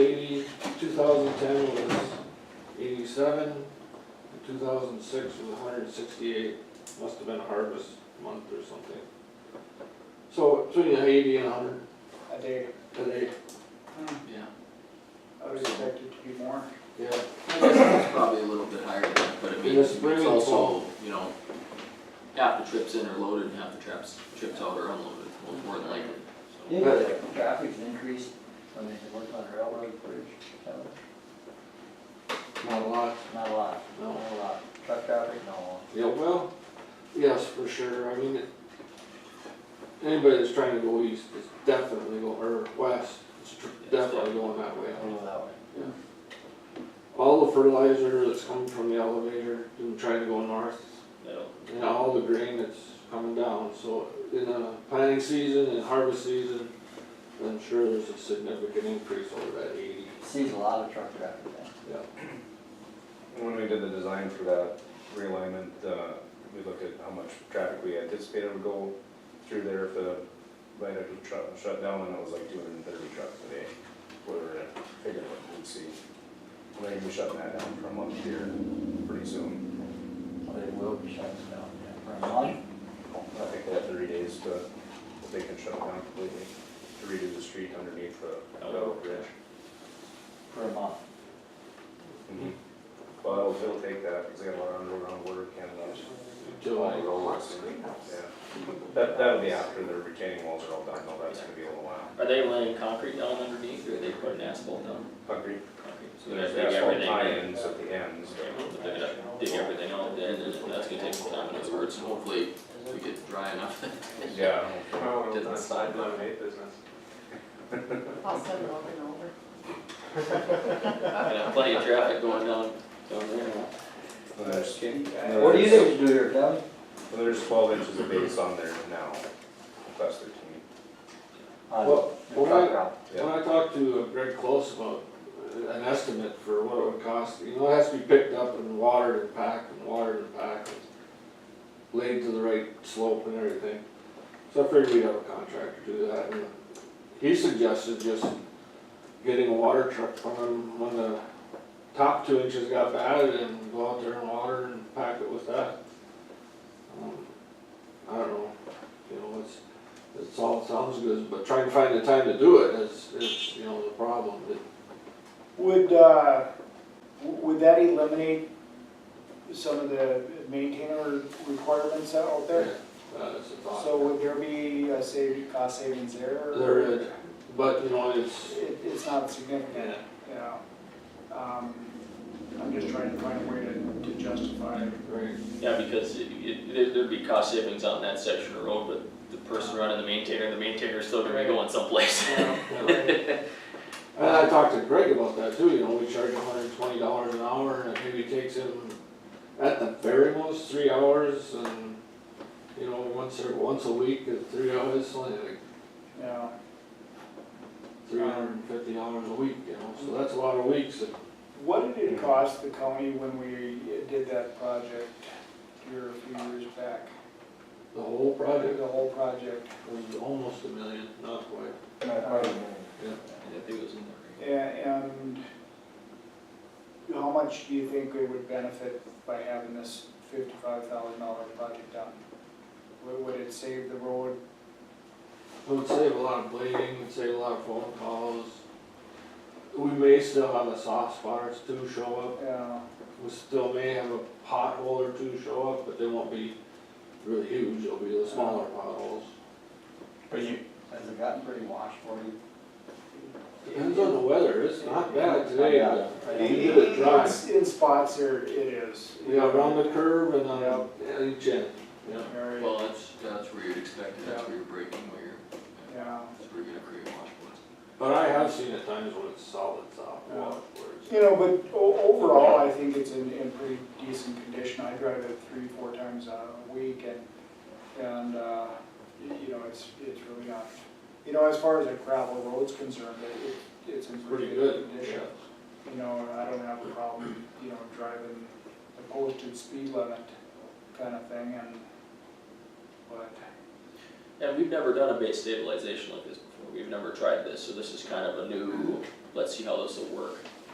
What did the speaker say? seventy-seven, and two thousand six was hundred and sixty-eight, must have been harvest month or something. So between eighty and hundred a day. today. Hmm, Yeah. I would expect it to be more. Yeah. I guess it's probably a little bit higher than that, but I mean, In the it's spring and also, fall. you know, half the trips in are loaded and half the trips, trips out are unloaded, well, more than likely, so. Yeah, the traffic's increased when they work on the railroad bridge, Not a lot. not a lot, No. a lot. Truck traffic, no. Yeah, well, yes, for sure, I mean, it- anybody that's trying to go east is definitely going, or west, is tr- definitely going that way. Go that way. All the fertilizer that's coming from the elevator, and trying to go north, and all the grain that's coming down, so in the planting season and harvest season, I'm sure there's a significant increase over that eighty. Sees a lot of truck traffic then. When we did the design for that realignment, uh, we looked at how much traffic we anticipated would go through there if the light had shut, shut down, and it was like two hundred and thirty trucks a day. We were figuring what we'd see. We're gonna be shutting that down for a month here pretty soon. Well, They will be shut down, yeah, for a month. I think they have thirty days to, if they can shut it down completely, to redo the street underneath the railroad bridge. For a month. Well, it'll- it'll take that, because they got a lot of underground uh, water cannon up. July. Yeah. That, that'll be after the retaining walls are all done, though, that's gonna be a little while. Are they laying concrete down underneath, or are they putting asphalt down? Concrete, Concrete, So they're there's gonna dig asphalt everything. tie-ins at the ends, Okay, well, they're gonna Dig everything out, then, and then that's gonna take some time, In other words, hopefully, we get dry enough. yeah. Well, Didn't that's slide. lemonade business. I'll send it over and over. and have plenty of traffic going down, down there. There's, What do you think you do here, Kevin? well, there's twelve inches of base on there now, plus thirteen. On Well, Uh, the well, truck I- route. When I talked to Greg Close about uh, an estimate for what it would cost, you know, it has to be picked up and watered and packed and watered and packed. and Laid to the right slope and everything, so I figured we'd have a contractor do that, and he suggested just getting a water truck from him when the top two inches got bad and go out there and water and pack it with that. Um, I don't know, you know, it's, it's all, sounds good, but trying to find the time to do it is, is, you know, the problem, that Would, uh, w- would that eliminate some of the maintainer requirements out there? Uh, it's a So thought. would there be a save, cost savings there? There is, but, you know, it's, It, it's not significant, you know? Um, I'm just trying to find a way to, to justify it. right, Yeah, because it, it, there- there'd be cost savings on that section of road, but the person running the maintainer, the maintainer's still gonna be going someplace. and I talked to Greg about that too, you know, we charge hundred and twenty dollars an hour, and it maybe takes him, at the very most, three hours, and, you know, once or, once a week, it's three hours, it's only like You know, three hundred and fifty dollars a week, you know, so that's a lot of weeks that what did it cost the county when we did that project here a few years back? The whole project The whole project? was almost a million, not quite. I think it was in there. A- And how much do you think we would benefit by having this fifty-five thousand dollar project done? Would would it save the road? It would save a lot of blading, it would save a lot of phone calls. We may still have a soft spot or two show up, Uh, we still may have a pothole or two show up, but they won't be really huge, they'll be the smaller potholes. But you, Has it gotten pretty washed for you? Depends on the weather, it's not bad today, but Yeah. did it dry. It's- In spots there, it is. we got around the curve and on each end, yeah. Very, Well, that's, that's where you'd expect it, that's where you're breaking, where you're, yeah. that's where you're gonna create washboards. But I have seen at times when it's solid, soft, Yeah. water, where it's- You know, but o- overall, I think it's in, in pretty decent condition. I drive it three, four times a week and, and, uh, y- you know, it's, it's really not. You know, as far as a gravel road's concerned, it, it- it's in pretty good, condition. yeah. You know, and I don't have a problem, you know, driving the posted speed limit kind of thing and, but, And we've never done a base stabilization like this before, we've never tried this, so this is kind of a new, let's see how this will work.